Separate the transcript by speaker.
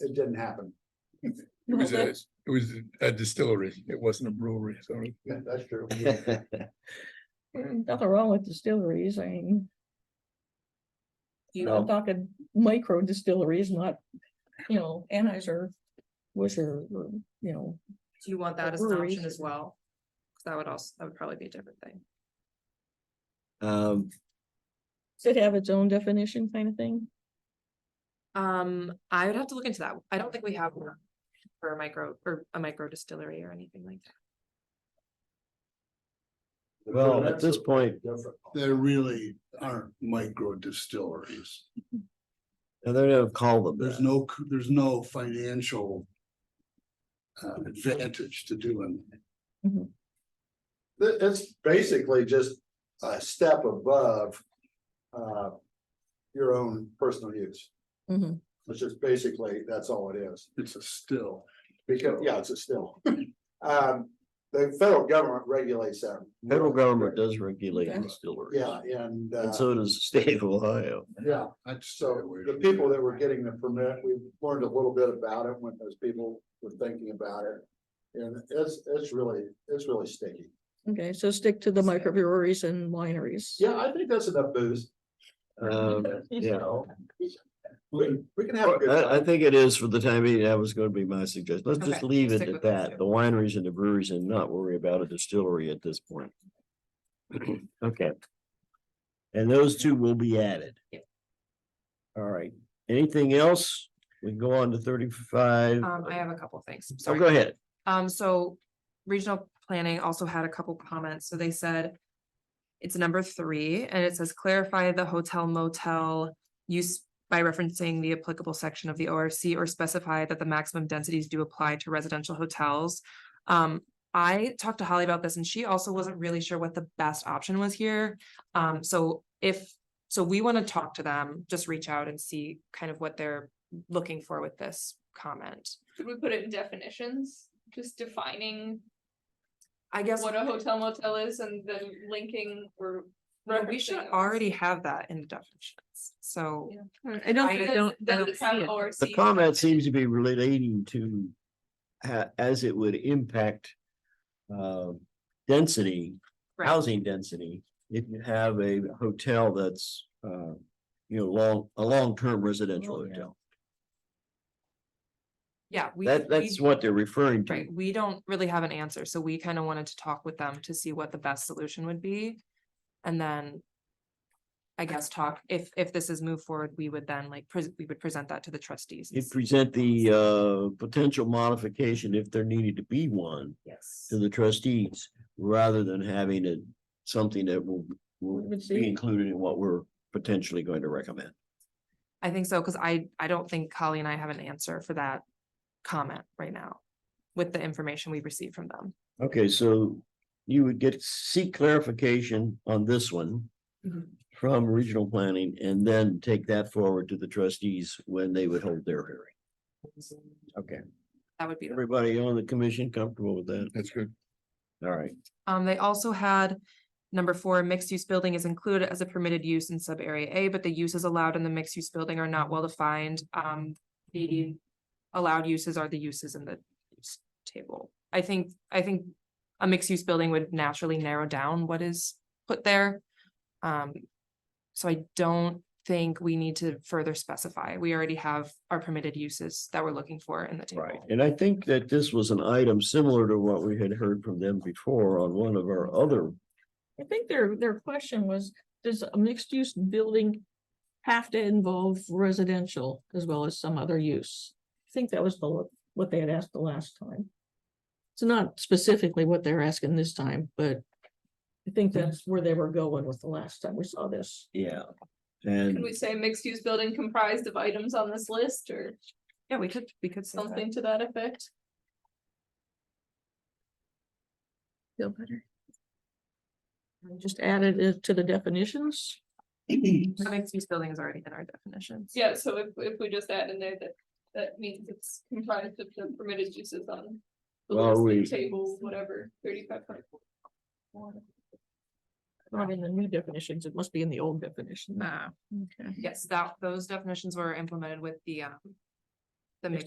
Speaker 1: It didn't happen.
Speaker 2: It was a, it was a distillery. It wasn't a brewery, so.
Speaker 1: Yeah, That's true.
Speaker 3: mm, Nothing wrong with distilleries, I mean. You know, I'm
Speaker 4: No.
Speaker 3: talking micro distilleries, not, you know, Anheuser, Busch or, or, you know,
Speaker 5: Do you want that as an
Speaker 3: brewery.
Speaker 5: option as well? 'Cause That would also, that would probably be a different thing.
Speaker 4: Um,
Speaker 3: should have its own definition kind of thing.
Speaker 5: Um, I would have to look into that. I don't think we have one for a micro, or a micro distillery or anything like that.
Speaker 4: well, at this point,
Speaker 1: There really aren't micro distilleries.
Speaker 4: they're gonna call them
Speaker 1: There's
Speaker 4: that.
Speaker 1: no, c- there's no financial uh, advantage to doing.
Speaker 3: Mhm.
Speaker 1: That, that's basically just a step above uh, your own personal use.
Speaker 3: Mhm.
Speaker 1: Which is basically, that's all it is. It's a still. Because, yeah, it's a still. Um, the federal government regulates that.
Speaker 4: Federal government does regulate
Speaker 3: Okay.
Speaker 4: distilleries.
Speaker 1: Yeah, and. uh,
Speaker 4: And so does the state of Ohio.
Speaker 1: Yeah, so the people that were getting the permit, we learned a little bit about it when those people were thinking about it. And it's, it's really, it's really sticky.
Speaker 3: Okay, so stick to the microbreweries and wineries.
Speaker 1: Yeah, I think that's enough booze.
Speaker 4: Um, yeah.
Speaker 1: We, we can have a good
Speaker 4: I, I
Speaker 1: time.
Speaker 4: think it is for the time being, that was gonna be my suggestion. Let's just
Speaker 5: Okay,
Speaker 4: leave it
Speaker 5: stick
Speaker 4: at
Speaker 5: with those
Speaker 4: that,
Speaker 5: two.
Speaker 4: the wineries and the breweries and not worry about a distillery at this point. Okay. And those two will be added.
Speaker 5: Yep.
Speaker 4: All right, anything else? We can go on to thirty-five.
Speaker 5: Um, I have a couple things. I'm
Speaker 4: Mm. Oh,
Speaker 5: sorry.
Speaker 4: go ahead.
Speaker 5: Um, so regional planning also had a couple comments, so they said. It's number three, and it says clarify the hotel motel use by referencing the applicable section of the ORC or specify that the maximum densities do apply to residential hotels. Um, I talked to Holly about this and she also wasn't really sure what the best option was here. Um, so if, so we want to talk to them, just reach out and see kind of what they're looking for with this comment.
Speaker 6: Could we put it in definitions, just defining
Speaker 5: I guess.
Speaker 6: what a hotel motel is and then linking or.
Speaker 5: No, we should
Speaker 6: referencing those?
Speaker 5: already have that in the definitions, so.
Speaker 6: Yeah.
Speaker 7: I don't,
Speaker 5: I-
Speaker 7: I
Speaker 6: Does-
Speaker 7: don't, I
Speaker 6: does
Speaker 7: don't
Speaker 6: it
Speaker 7: see
Speaker 6: have
Speaker 7: it.
Speaker 6: ORC?
Speaker 4: The comment seems to be relating to ha- as it would impact um, density,
Speaker 5: Right.
Speaker 4: housing density, if you have a hotel that's uh, you know, long, a long-term residential
Speaker 3: Oh, yeah.
Speaker 4: hotel.
Speaker 5: Yeah, we.
Speaker 4: That,
Speaker 5: we-
Speaker 4: that's what they're referring to.
Speaker 5: Right, we don't really have an answer, so we kind of wanted to talk with them to see what the best solution would be. And then. I guess talk, if, if this is moved forward, we would then like, pres- we would present that to the trustees. and
Speaker 4: You
Speaker 5: see-
Speaker 4: present the uh, potential modification, if there needed to be one,
Speaker 5: Yes.
Speaker 4: to the trustees, rather than having it, something that will, will
Speaker 3: Would
Speaker 4: be
Speaker 3: be-
Speaker 4: included in what we're potentially going to recommend.
Speaker 5: I think so, because I, I don't think Holly and I have an answer for that comment right now. With the information we received from them.
Speaker 4: Okay, so you would get, seek clarification on this one
Speaker 5: Mhm.
Speaker 4: from regional planning and then take that forward to the trustees when they would hold their hearing. Okay,
Speaker 5: That would be. the-
Speaker 4: everybody on the commission comfortable with that?
Speaker 2: That's good.
Speaker 4: All right,
Speaker 5: Um, they also had number four, mixed use building is included as a permitted use in sub area A, but the uses allowed in the mixed use building are not well defined. Um, the allowed uses are the uses in the use table. I think, I think a mixed use building would naturally narrow down what is put there. Um, so I don't think we need to further specify. We already have our permitted uses that we're looking for in the table.
Speaker 4: right. And I think that this was an item similar to what we had heard from them before on one of our other,
Speaker 3: I think their, their question was, does a mixed use building have to involve residential as well as some other use? I think that was the, what they had asked the last time. It's not specifically what they're asking this time, but I think that's where they were going with the last time we saw this.
Speaker 4: yeah.
Speaker 6: Could
Speaker 4: And
Speaker 6: we say mixed use building comprised of items on this list or
Speaker 5: Yeah, we could, we could say that.
Speaker 6: something to that effect?
Speaker 3: Feel better. We Just added it uh, to the definitions.
Speaker 5: The mixed use building is already in our definitions.
Speaker 6: Yeah, so if, if we just add in there that, that means it's comprised of the permitted uses on. the
Speaker 4: Well,
Speaker 6: listed
Speaker 4: we-
Speaker 6: Table, whatever, thirty-five point four.
Speaker 3: Not in the new definitions, it must be in the old definition.
Speaker 5: Ah,
Speaker 3: Okay.
Speaker 5: yes, that, those definitions were implemented with the, um,